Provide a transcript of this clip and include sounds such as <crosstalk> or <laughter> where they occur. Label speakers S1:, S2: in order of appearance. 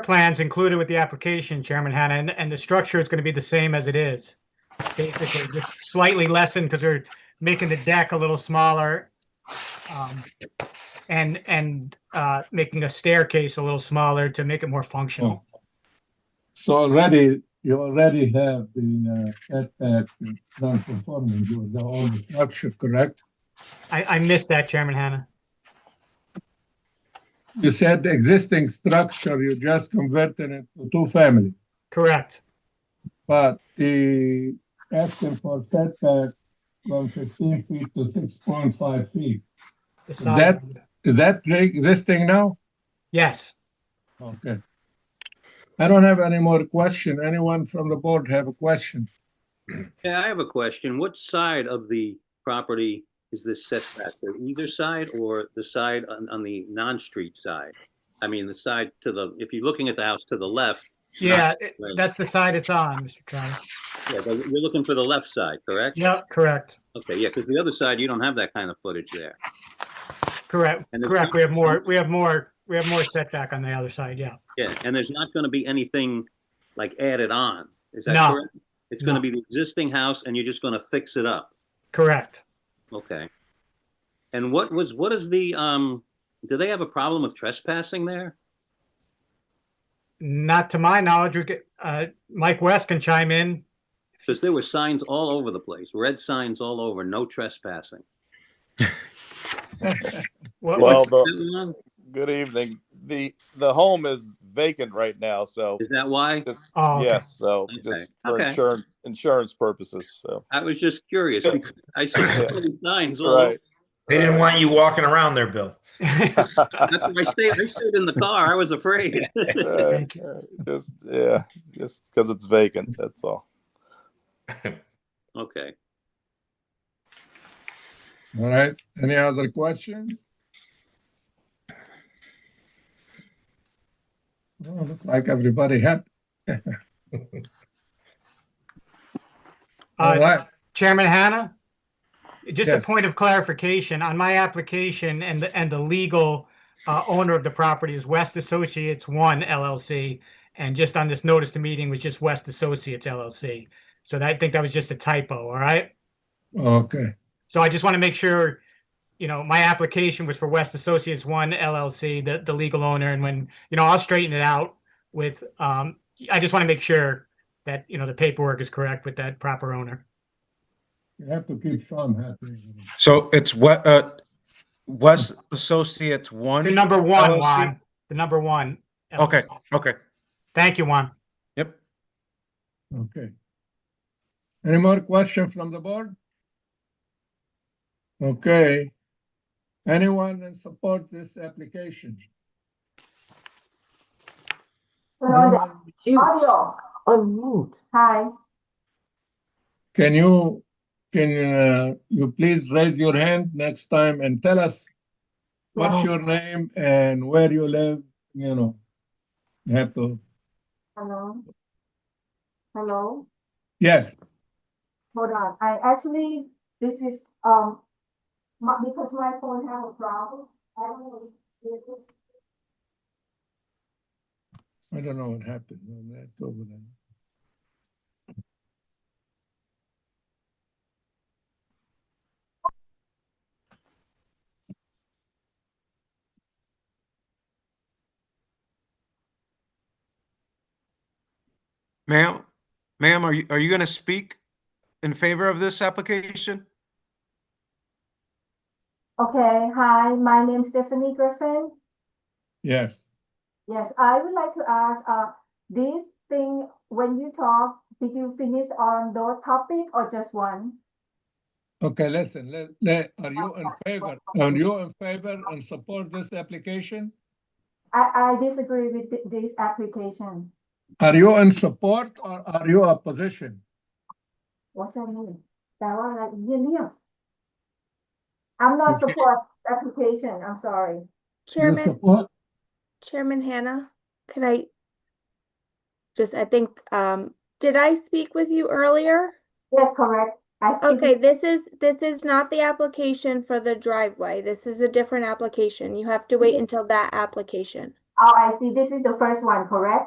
S1: plans included with the application, Chairman Hanna, and, and the structure is going to be the same as it is. Basically, just slightly lessened because we're making the deck a little smaller. um, And, and uh, making a staircase a little smaller to make it more functional.
S2: So already, you already have the uh, setback non-conforming with the old structure, correct?
S1: I, I missed that, Chairman Hanna.
S2: You said the existing structure, you just converted it to two-family,
S1: Correct.
S2: but the asking for setback from fifteen feet to six point five feet,
S1: The side-
S2: That- is that the existing now?
S1: Yes.
S2: Okay. I don't have any more question. Anyone from the board have a question?
S3: Yeah, I have a question. What side of the property is this setback? The Either side or the side on, on the non-street side? I mean, the side to the, if you're looking at the house to the left,
S1: Yeah, it-
S3: Right.
S1: that's the side it's on, Mr. Travis.
S3: yeah, but you're looking for the left side, correct?
S1: Yep, correct,
S3: Okay, yeah, because the other side, you don't have that kind of footage there.
S1: correct,
S3: And the-
S1: correct. We have more, we have more, we have more setback on the other side, yeah.
S3: Yeah, and there's not going to be anything like added on. Is that
S1: No.
S3: correct? It's going
S1: No.
S3: to be the existing house and you're just going to fix it up.
S1: Correct.
S3: Okay. And what was, what is the, um, do they have a problem with trespassing there?
S1: Not to my knowledge, we get, uh, Mike West can chime in.
S3: Because there were signs all over the place, red signs all over, no trespassing.
S1: What,
S4: Well,
S1: what's,
S4: the,
S3: Is
S4: good evening. The, the home is vacant right now, so,
S3: that why?
S1: oh, okay.
S4: yes, so
S3: Okay.
S4: just for
S3: Okay.
S4: insurance, insurance purposes, so,
S3: I was just curious because I see so
S4: Yeah.
S3: many signs all over.
S4: right.
S5: They didn't want you walking around there, Bill.
S3: That's why I stayed, I stayed in the car. I was afraid.
S4: Uh,
S1: Thank
S4: uh, Just, yeah, just because it's vacant, that's all.
S3: <laughs> Okay.
S2: All right, any other questions? Oh, Look like everybody had. All
S1: <laughs> Uh,
S2: right,
S1: Chairman Hanna? Just a
S2: Yes.
S1: point of clarification, on my application and, the and the legal, uh, owner of the property is West Associates One LLC. And just on this notice to meeting was just West Associates LLC. So that, I think that was just a typo, all right?
S2: okay,
S1: So I just want to make sure, you know, my application was for West Associates One LLC, the, the legal owner, and when, you know, I'll straighten it out with, um, I just want to make sure that, you know, the paperwork is correct with that proper owner.
S2: you have to keep Sean happy.
S6: So it's what, uh, West Associates
S1: The
S6: one?
S1: number one,
S6: LLC.
S1: Juan, the number one.
S6: Okay.
S1: LLC.
S6: Okay,
S1: Thank you, Juan.
S6: yep.
S2: Okay. Any more question from the board? Okay. Anyone in support this application?
S7: Audio, unmute. Hi.
S2: Can you, can uh, you please raise your hand next time and tell us what's your name and where you live, you know? You have to,
S7: Hello? Hello?
S2: yes,
S7: Hold on, I actually, this is, um, my, because my phone have a problem, I don't know. if it-
S2: I don't know what happened. No, that's over there.
S6: Ma'am, ma'am, are you, are you gonna speak in favor of this application?
S7: Okay, hi, my name's Stephanie Griffin.
S2: Yes,
S7: Yes, I would like to ask, uh, this thing, when you talk, did you finish on the topic or just one?
S2: okay, listen, let, let, are you in favor, are you in favor and support this application?
S7: I, I disagree with thi- this application.
S2: Are you in support or are you opposition?
S7: What's that mean? That one, like, yeah, yeah. I'm not
S2: Okay.
S7: support application, I'm sorry.
S2: You
S8: Chairman,
S2: support?
S8: Chairman Hannah, can I? Just, I think, um, did I speak with you earlier?
S7: That's correct. I speak.
S8: Okay, this is, this is not the application for the driveway. This is a different application. You have to wait until that application.
S7: Oh, I see. This is the first one, correct?